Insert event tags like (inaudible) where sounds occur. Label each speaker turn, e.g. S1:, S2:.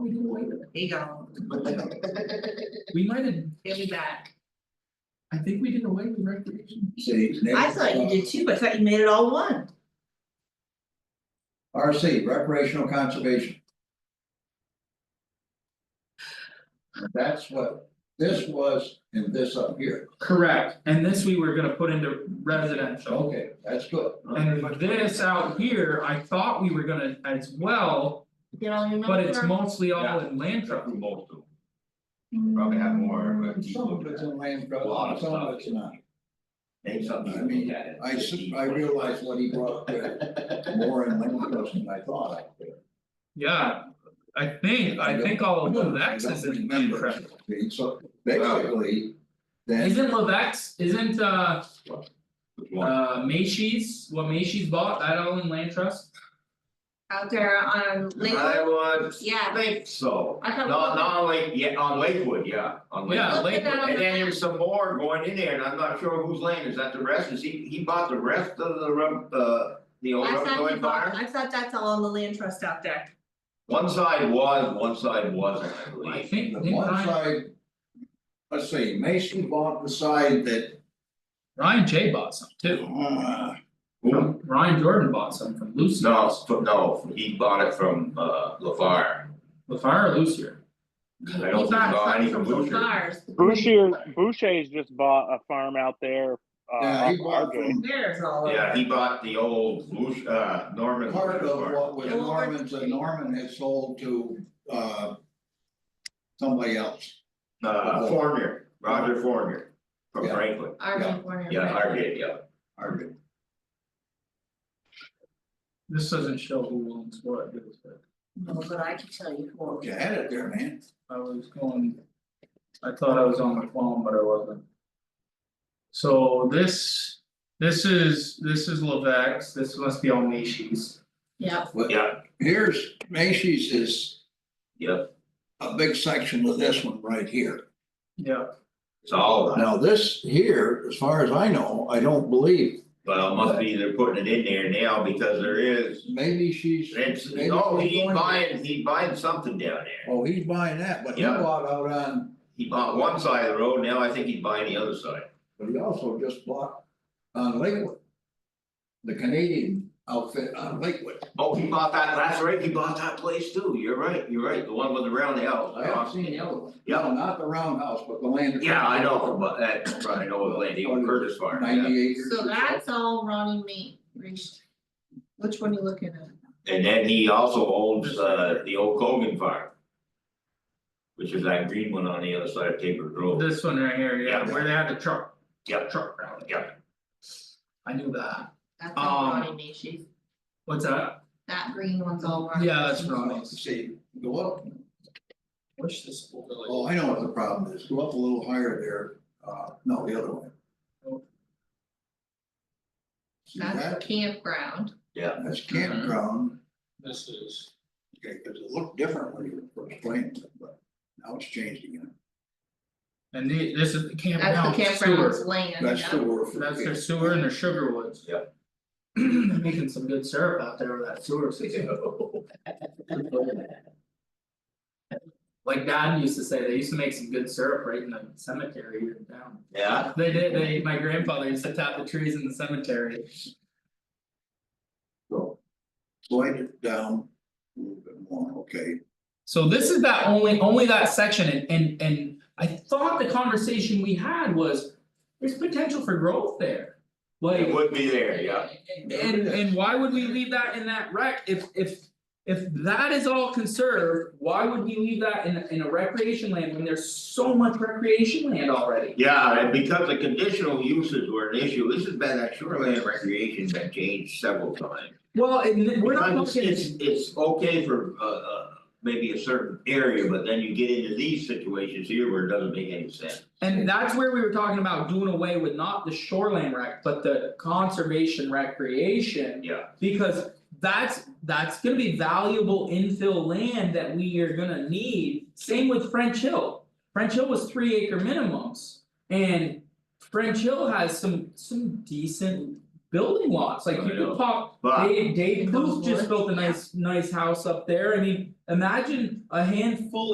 S1: There you go,
S2: We might have,
S1: give me back.
S2: I think we did away with recreation.
S3: See, next.
S1: I thought you did too, but I thought you made it all one.
S3: RC, recreational conservation. That's what this was and this up here,
S2: Correct, and this we were gonna put into residential.
S3: okay, that's good.
S2: And this out here, I thought we were gonna as well,
S1: You know, you know.
S2: but it's mostly all
S4: Yeah.
S2: in land
S4: Truck
S2: trust.
S4: and most of them, probably have more of a deep
S3: Some
S4: look
S3: of
S4: at
S3: it's
S4: that.
S3: in land
S4: A lot of
S3: trust, some of
S4: stuff.
S3: it's not.
S4: Maybe something
S3: I
S4: you
S3: mean,
S4: look at it.
S3: I s- I realized what he brought up there, more in land trust than I thought I did.
S2: Yeah, I think, I think all of Levex is in land
S3: Remember,
S2: trust.
S3: see, So basically, then.
S2: Isn't Levex, isn't uh
S4: Which one?
S2: uh Macy's, what Macy's bought, that all in land trust?
S1: Out there on Lakewood,
S4: would
S1: yeah, but
S4: think so,
S1: I
S4: not
S1: thought-
S4: not on Lake, yeah, on Lakewood, yeah, on Lakewood.
S2: Yeah,
S1: Look at
S2: Lakewood.
S1: that on the
S4: And then
S1: map.
S4: there's some more going in there, and I'm not sure whose land is that, the rest, is he, he bought the rest of the rub, uh, the old
S1: I
S4: rubber
S1: thought
S4: going
S1: you bought,
S4: barn?
S1: I thought that's all on the land trust out there.
S4: One side was, one side wasn't, I
S2: I
S4: believe.
S2: think,
S3: The
S2: didn't
S3: one
S2: Ryan,
S3: side. Let's see, Mason bought the side that,
S2: Ryan J bought some too,
S3: uh,
S4: Who?
S2: Ryan Jordan bought some from Lucy,
S4: No, it's from- no, he bought it from uh LaFar,
S2: LaFar or Lucier?
S4: I don't think he bought any from Boucher.
S1: (laughs)
S5: Boucher, Boucher's just bought a farm out there. Uh,
S3: yeah, he
S5: off
S3: bought
S5: Argo.
S3: from
S1: There's all of
S4: Yeah,
S1: that.
S4: he bought the old Lush, uh Norman.
S3: part of
S4: Farm.
S3: what was
S1: Yeah.
S3: Norman's, and Norman had sold to, uh. Somebody else,
S4: Uh, Fornier, Roger Fornier from
S3: Yeah.
S4: Franklin,
S1: Arvin Corner.
S4: yeah, Hargate, yeah.
S3: Arvin.
S2: This doesn't show who owns what, does it?
S1: No, but I can tell you who.
S3: You had it there, man.
S2: I was going, I thought I was on the phone, but I wasn't. So this, this is, this is Levex, this must be all Macy's.
S1: Yeah,
S3: But
S4: Yeah.
S3: here's, Macy's is
S4: Yep,
S3: a big section of this one right here.
S2: Yeah.
S4: it's all of that,
S3: Now, this here, as far as I know, I don't believe,
S4: well, it must be they're putting it in there now because there is,
S3: maybe she's.
S4: it's,
S3: maybe
S4: oh,
S3: she's
S4: he
S3: going to-
S4: buying, he buying something down there.
S3: Oh, he's buying that, but he
S4: Yeah.
S3: bought out on
S4: He bought one side of the road, now I think he's buying the other side.
S3: But he also just bought on Lakewood. The Canadian outfit on Lakewood.
S4: Oh, he bought that, that's right, he bought that place too, you're right, you're right, the one with the round house.
S3: I haven't seen the other one.
S4: Yeah.
S3: No, Not the roundhouse, but the land.
S4: Yeah, I know, but that, I know the lady, Curtis Farm, yeah.
S3: Ninety acres. or
S1: so that's all Ronnie Mae reached. Which one you looking at?
S4: And then he also owns uh the old Cogan farm. Which is that green one on the other side of Tabor Grove.
S2: This one right here, yeah, where they had the truck,
S4: Yep,
S2: truck route.
S4: yep,
S2: I knew that.
S1: That's
S2: Um,
S1: all Ronnie Mae, she's,
S2: What's that?
S1: that green one's all Ronnie.
S2: Yeah, that's
S1: Mae's.
S3: something.
S2: Ronnie's.
S3: See, go up,
S2: What's this? whole village?
S3: oh, I know what the problem is, go up a little higher there, uh, no, the other way. See
S1: That's Mm-hmm. the
S3: that,
S1: campground.
S3: that's campground,
S2: This is.
S3: okay, cause it looked different when you were first playing, it, but now it's changed again.
S2: And the, this is the
S1: That's
S2: campground
S1: the campground's
S2: sewer,
S1: land.
S3: That's
S1: yeah.
S3: the word for.
S2: that's their sewer and their sugar woods.
S4: Yep.
S2: They're Making some good syrup out there with that sewer system. Like dad used to say, they used to make some good syrup right in the cemetery here in town.
S4: yeah,
S2: They did, they, my grandfather used to tap the trees in the cemetery.
S3: So, Slide it down a little bit more, okay,
S2: So this is that only, only that section and and and I thought the conversation we had was. There's potential for growth there, like.
S4: it would be there, yeah,
S2: And and why would we leave that in that rec, if if. If that is all conserved, why would we leave that in in a recreation land when there's so much recreation land already?
S4: yeah, and because the conditional uses were an issue, this has been, that shoreline recreation has been changed several times.
S2: Well, and th- we're not
S4: Because
S2: looking.
S4: It's it's okay for uh uh maybe a certain area, but then you get into these situations here where it doesn't make any sense.
S2: And that's where we were talking about doing away with not the shoreline rec, but the conservation recreation.
S4: Yeah.
S2: Because that's, that's gonna be valuable infill land that we are gonna need, same with French Hill. French Hill was three acre minimums, and French Hill has some, some decent building lots, like you
S4: I know.
S2: could pop
S4: But
S2: Dave Dave
S1: Those
S2: Booth just
S1: woods,
S2: built a
S1: yeah.
S2: nice nice house up there, I mean, imagine a handful